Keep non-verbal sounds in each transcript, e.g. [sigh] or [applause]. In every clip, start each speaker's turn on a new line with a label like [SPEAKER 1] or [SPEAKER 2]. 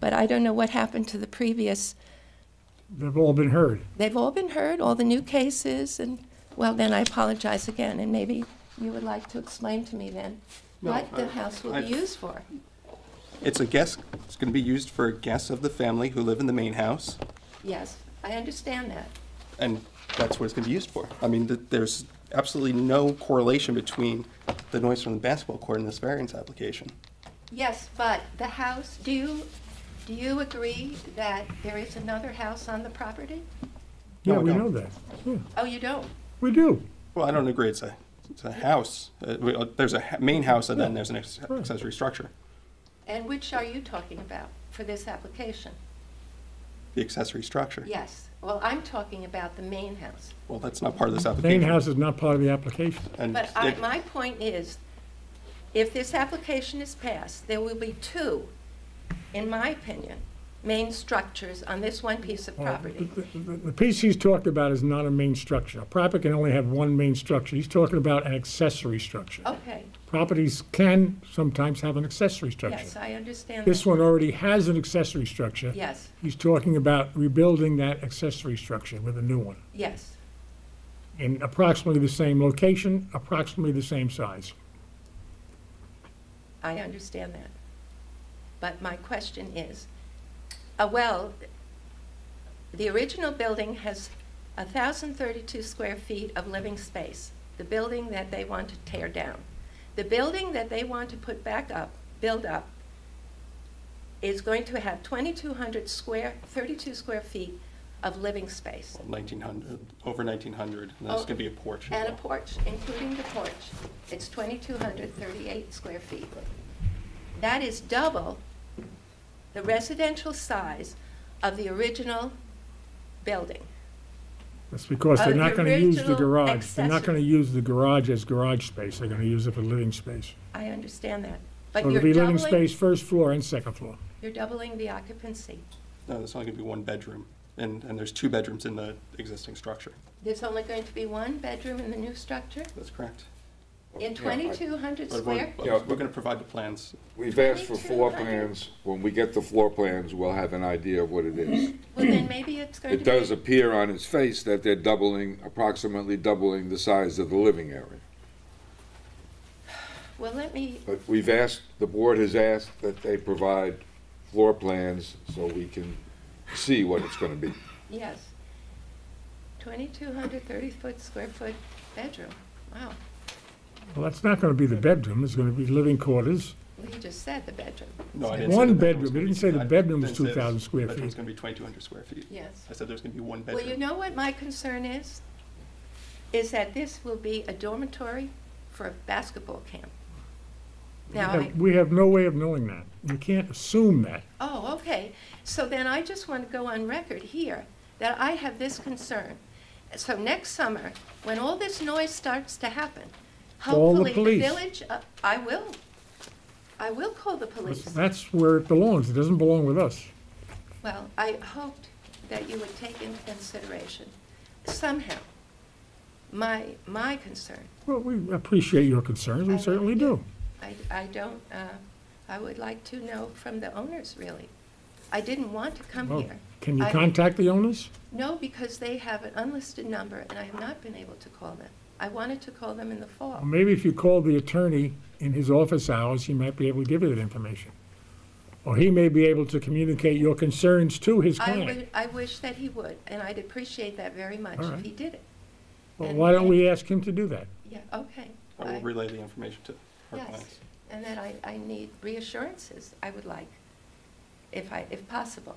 [SPEAKER 1] But I don't know what happened to the previous.
[SPEAKER 2] They've all been heard.
[SPEAKER 1] They've all been heard, all the new cases, and, well, then I apologize again, and maybe you would like to explain to me then
[SPEAKER 3] No,
[SPEAKER 1] what the
[SPEAKER 3] I-
[SPEAKER 1] house will be
[SPEAKER 3] I-
[SPEAKER 1] used for.
[SPEAKER 3] It's a guest, it's going to be used for guests of the family who live in the main house,
[SPEAKER 1] Yes, I understand that.
[SPEAKER 3] and that's what it's going to be used for. I mean, th- there's absolutely no correlation between the noise from the basketball court and this variance application.
[SPEAKER 1] Yes, but the house, do you, do you agree that there is another house on the property?
[SPEAKER 3] No,
[SPEAKER 2] Yeah,
[SPEAKER 3] we
[SPEAKER 2] we know
[SPEAKER 3] don't.
[SPEAKER 2] that. Yeah,
[SPEAKER 1] Oh, you don't?
[SPEAKER 2] we do.
[SPEAKER 3] Well, I don't agree, it's a, it's a house. Uh, we- uh, There's a ha- main house, and then there's an ex- accessory structure,
[SPEAKER 1] And which are you talking about for this
[SPEAKER 3] [laughs]
[SPEAKER 1] application?
[SPEAKER 3] the accessory structure.
[SPEAKER 1] Yes, well, I'm talking about the main house.
[SPEAKER 3] Well, that's not part of this
[SPEAKER 2] Main
[SPEAKER 3] application.
[SPEAKER 2] house is not part of the application.
[SPEAKER 3] And
[SPEAKER 1] But I,
[SPEAKER 3] it-
[SPEAKER 1] my point is, if this application is passed, there will be two, in my opinion, main structures on this one piece of property.
[SPEAKER 2] The- The the piece he's talking about is not a main structure. A property can only have one main structure. He's talking about an accessory structure.
[SPEAKER 1] Okay,
[SPEAKER 2] Properties can sometimes have an accessory structure.
[SPEAKER 1] Oh. yes, I understand
[SPEAKER 2] This
[SPEAKER 1] that.
[SPEAKER 2] one already has an accessory structure.
[SPEAKER 1] Yes,
[SPEAKER 2] He's talking about rebuilding that accessory structure with a new one
[SPEAKER 1] yes,
[SPEAKER 2] in approximately the same location, approximately the same size.
[SPEAKER 1] I understand that. But my question is, uh, well, the original building has 1,032 square feet of living space, the building that they want to tear down. The building that they want to put back up, build up, is going to have 2,200 square, 32 square feet of living space.
[SPEAKER 3] 1900, over 1900, and there's
[SPEAKER 1] Oh,
[SPEAKER 3] going to be a porch. as
[SPEAKER 1] And a
[SPEAKER 3] well.
[SPEAKER 1] porch, including the porch, it's 2,238 square feet. That is double the residential size of the original building.
[SPEAKER 2] That's because they're
[SPEAKER 1] Uh,
[SPEAKER 2] not
[SPEAKER 1] the
[SPEAKER 2] going to use the
[SPEAKER 1] original
[SPEAKER 2] garage. They're not going
[SPEAKER 1] accessory.
[SPEAKER 2] to use the garage as garage space. They're going to use it for living space.
[SPEAKER 1] I understand that.
[SPEAKER 2] So
[SPEAKER 1] But
[SPEAKER 2] it'll
[SPEAKER 1] you're
[SPEAKER 2] be living
[SPEAKER 1] doubling,
[SPEAKER 2] space, first floor and second floor.
[SPEAKER 1] you're doubling the occupancy.
[SPEAKER 3] No, there's only going to be one bedroom, and, and there's two bedrooms in the existing structure.
[SPEAKER 1] There's only going to be one bedroom in the new structure?
[SPEAKER 3] That's correct.
[SPEAKER 1] In 2,200
[SPEAKER 3] But we're-
[SPEAKER 1] square?
[SPEAKER 3] but
[SPEAKER 4] Yeah.
[SPEAKER 3] We're going to provide the plans.
[SPEAKER 4] We've asked for floor plans. When we get the floor plans, we'll have an idea of what it is.
[SPEAKER 1] Well, then maybe it's going to
[SPEAKER 4] It
[SPEAKER 1] be...
[SPEAKER 4] does appear on its face that they're doubling, approximately doubling the size of the living area.
[SPEAKER 1] Well, let me,
[SPEAKER 4] But we've asked, the board has asked that they provide floor plans so we can see what it's gonna be.
[SPEAKER 1] yes. 2,200 30-foot square foot bedroom. Wow.
[SPEAKER 2] Well, that's not going to be the bedroom. It's going to be living quarters.
[SPEAKER 1] Well, you just said the bedroom.
[SPEAKER 3] No, I
[SPEAKER 2] It's
[SPEAKER 3] didn't say
[SPEAKER 2] one
[SPEAKER 3] the bedroom
[SPEAKER 2] bedroom.
[SPEAKER 3] was gonna
[SPEAKER 2] It
[SPEAKER 3] be-
[SPEAKER 2] didn't say the
[SPEAKER 3] I
[SPEAKER 2] bedroom was
[SPEAKER 3] didn't say the
[SPEAKER 2] 2,000 square
[SPEAKER 3] Bedroom's
[SPEAKER 2] feet.
[SPEAKER 3] gonna be twenty-two hundred square feet.
[SPEAKER 1] Yes.
[SPEAKER 3] I said there's gonna be one
[SPEAKER 1] Well, you
[SPEAKER 3] bedroom.
[SPEAKER 1] know what my concern is? Is that this will be a dormitory for a basketball camp. Now,
[SPEAKER 2] We
[SPEAKER 1] I,
[SPEAKER 2] have- We have no way of knowing that. You can't assume that.
[SPEAKER 1] oh, okay. So then I just want to go on record here that I have this concern. So next summer, when all this noise starts to happen,
[SPEAKER 2] Call the
[SPEAKER 1] hopefully the
[SPEAKER 2] police.
[SPEAKER 1] village, uh, I will. I will call the police.
[SPEAKER 2] That's where it belongs. It doesn't belong with us.
[SPEAKER 1] Well, I hoped that you would take into consideration somehow my, my concern.
[SPEAKER 2] Well, we appreciate your concerns. We certainly do.
[SPEAKER 1] I, I don't, uh, I would like to know from the owners, really. I didn't want to come
[SPEAKER 2] Well,
[SPEAKER 1] here.
[SPEAKER 2] Can you
[SPEAKER 1] I-
[SPEAKER 2] contact the owners?
[SPEAKER 1] No, because they have an unlisted number, and I have not been able to call them. I wanted to call them in the
[SPEAKER 2] Or
[SPEAKER 1] fall.
[SPEAKER 2] Uh, Maybe if you call the attorney in his office hours, he might be able to give you that information. Or he may be able to communicate your concerns to his
[SPEAKER 1] I
[SPEAKER 2] client.
[SPEAKER 1] would, I wish that he would, and I'd appreciate that very much
[SPEAKER 2] All
[SPEAKER 1] if
[SPEAKER 2] right.
[SPEAKER 1] he did it.
[SPEAKER 2] Well, why don't we ask him to do that?
[SPEAKER 1] Yeah, okay.
[SPEAKER 3] I will
[SPEAKER 1] I-
[SPEAKER 3] relay the information to our
[SPEAKER 1] Yes,
[SPEAKER 3] clients.
[SPEAKER 1] and that I, I need reassurances, I would like, if I, if possible,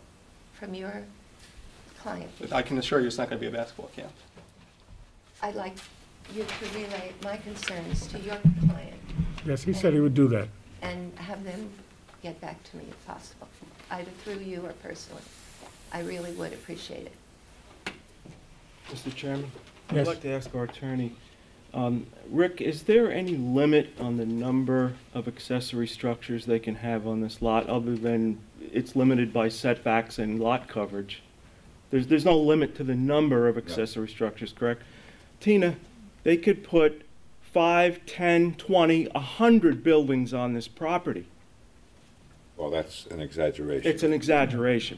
[SPEAKER 1] from your client.
[SPEAKER 3] But I can assure you, it's not gonna be a basketball camp.
[SPEAKER 1] I'd like you to relay my concerns to your client
[SPEAKER 2] Yes, he said he would do that.
[SPEAKER 1] and have them get back to me if possible, either through you or personally. I really would appreciate it.
[SPEAKER 5] Mr. Chairman?
[SPEAKER 2] Yes.
[SPEAKER 5] I'd like to ask our attorney, um, Rick, is there any limit on the number of accessory structures they can have on this lot, other than it's limited by setbacks and lot coverage? There's, there's no limit to the number of accessory structures, correct? Tina, they could put five, ten, twenty, a hundred buildings on this property.
[SPEAKER 6] Well, that's an exaggeration.
[SPEAKER 4] It's an exaggeration,